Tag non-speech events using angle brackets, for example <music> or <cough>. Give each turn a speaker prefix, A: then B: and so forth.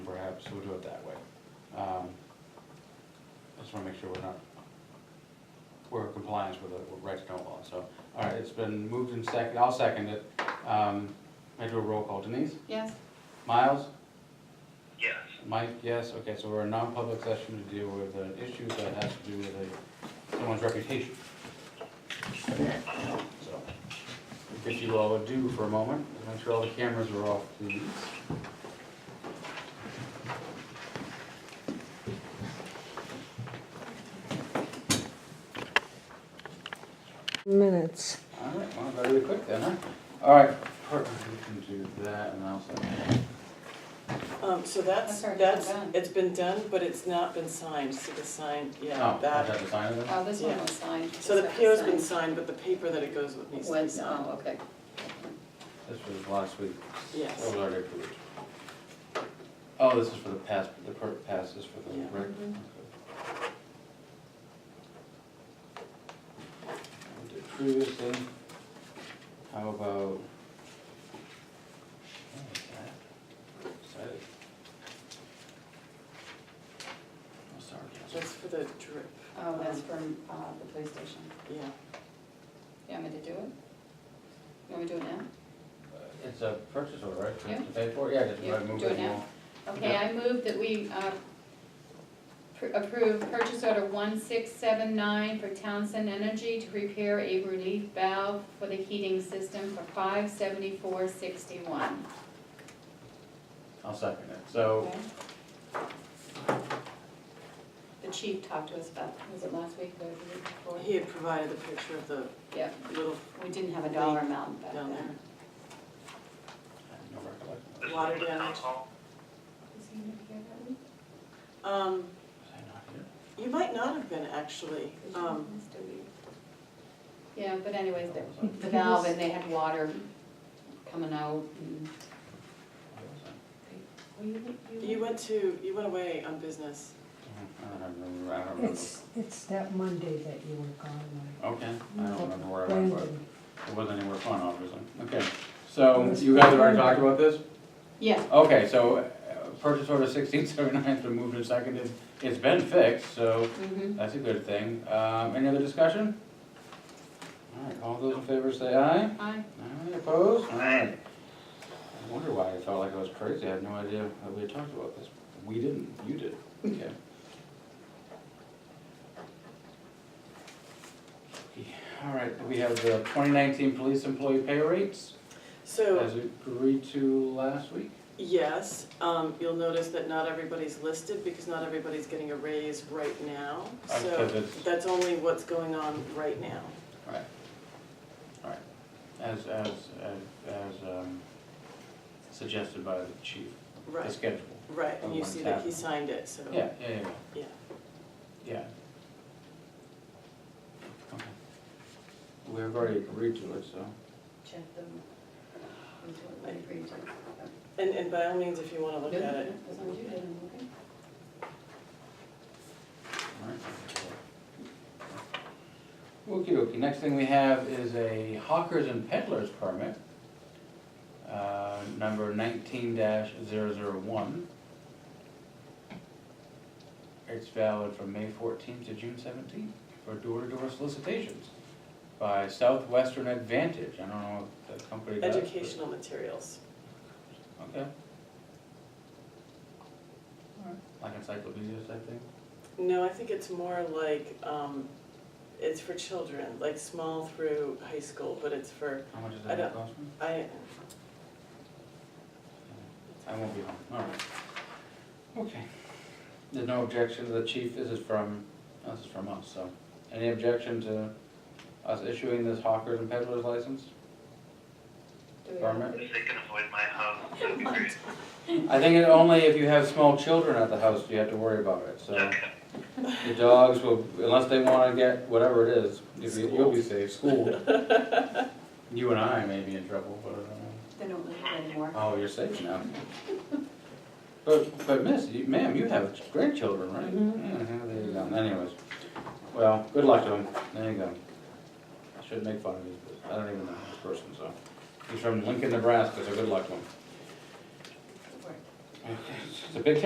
A: so we'll do it that way. Um, I just wanna make sure we're not, we're in compliance with the right to know law, so. All right, it's been moved and seconded, I'll second it. Um, I do a roll call, Denise?
B: Yes,
A: Miles?
C: Yes.
A: Mike, yes, okay, so we're in non-public session to deal with an issue that has to do with a, someone's reputation. So, if you all would do for a moment, make sure all the cameras are off, please.
D: minutes.
A: All right, well, that'll be quick then, huh? All right, perfect, we can do that and I'll second.
E: Um, so that's,
B: That's already been
E: that's,
B: done.
E: it's been done, but it's not been signed, so the sign, yeah,
A: Oh, I
E: that. Uh,
A: have to sign it then?
B: oh, this one
E: Yeah.
B: was signed.
E: So the
B: This
E: PO's
B: was
E: been signed, but the paper that it goes with needs to be
B: Went,
E: signed,
B: oh, okay.
A: This was last week. That
E: yes.
A: was already approved. Oh, this is for the pass, the per, pass is for the,
E: Yeah. Mm-hmm.
A: right? Okay.
B: Mhm.
A: We did Previously, how about? oh, what's that? Excited. Oh, sorry, Counselor.
E: That's for the drip,
B: Oh, that's from uh, the police station.
E: yeah.
B: You want me to do it? You want me to do it now?
A: Uh, It's a purchase order, right?
B: Yeah.
A: To pay for it? Yeah, just
B: Yeah,
A: uh, move
B: do it
A: it
B: now.
A: along.
B: Okay, I move that we uh, pr- approve purchase order 1679 for Townsend Energy to repair a relief valve for the heating system for 57461.
A: I'll second it. So,
B: Okay. The chief talked to us about, was it last week or the week before?
E: He had provided the picture of the
B: Yeah,
E: little
B: we didn't have a dollar amount back
E: Down there.
B: then.
A: I have no recollection.
C: This is
E: Water
C: from the
E: damage.
C: council.
B: Is he gonna be here that week?
E: Um,
A: Was I not here?
E: you might not have been actually, um,
B: Yeah, but anyways, the the valve and they had water coming out and.
A: Where was I?
B: Were you-
E: you went to, you went away on business.
A: I don't remember, I don't remember.
D: It's, it's that Monday that you were gone,
A: Okay, I don't remember where
D: like,
A: I went, but
D: Brandon.
B: Mm-hmm.
A: it wasn't anywhere fun, obviously. Okay, so you guys already talked about this?
B: Yeah,
A: Okay, so uh, purchase order sixteen seventy-nine's been moved and seconded. It's been fixed, so
B: mhm.
A: that's a good thing. Um, any other discussion? All right, all those in favor say aye.
B: Hi,
A: Aye, opposed? All right. I wonder why I felt like I was crazy. I had no idea that we had talked about this. We didn't, you did. Okay. All right, we have the twenty nineteen police employee pay rates
E: So,
A: as agreed to last week.
E: yes, um, you'll notice that not everybody's listed because not everybody's getting a raise right now.
A: Uh, because
E: So
A: it's-
E: that's only what's going on right now.
A: All right. All right. As, as, as- as um, suggested by the chief, the
E: Right,
A: schedule.
E: right, and you
A: What's
E: see that he
A: happening.
E: signed it, so.
A: Yeah, yeah, yeah,
E: Yeah.
A: yeah. Yeah. Okay. We've already agreed to it, so.
B: check them. We do it when we agree to.
E: And, and by all means, if you wanna look
B: No,
E: at it,
B: no, as long as you did, I'm okay.
A: Okey dokey, next thing we have is a hawkers and peddlers permit, uh, number nineteen dash zero zero one. It's valid from May fourteenth to June seventeenth for door-to-door solicitations by Southwestern Advantage, I don't know what the company does. but-
E: educational materials.
A: Okay. Alright, like encyclopedias, I think.
E: No, I think it's more like, um, it's for children, like small through high school, but it's for,
A: How much is
E: I
A: that
E: don't-
A: cost me?
E: I,
A: I won't be home, all right. Okay. There's no objection to the chief, this is from, this is from us, so. Any objection to us issuing this hawkers and peddlers
E: <laughs>
A: license?
B: Do we-
A: Permit?
C: If they can avoid my house, that'd be great.
A: I think it only if you have small children at the house do you have to worry about it, so.
C: Okay.
A: The dogs will, unless they wanna get whatever it is, if you- you'll be safe, school.
E: <laughs>
A: You and I may be in trouble, but I don't know.
B: They don't live here anymore.
A: Oh, you're safe now. But, but miss, you, ma'am, you have grandchildren, right? Yeah, there you go, anyways. Well, good luck to him, there you go. I shouldn't make fun of him, but I don't even know this person, so. He's from Lincoln, Nebraska, so good luck to him.
B: Good work.
A: It's a big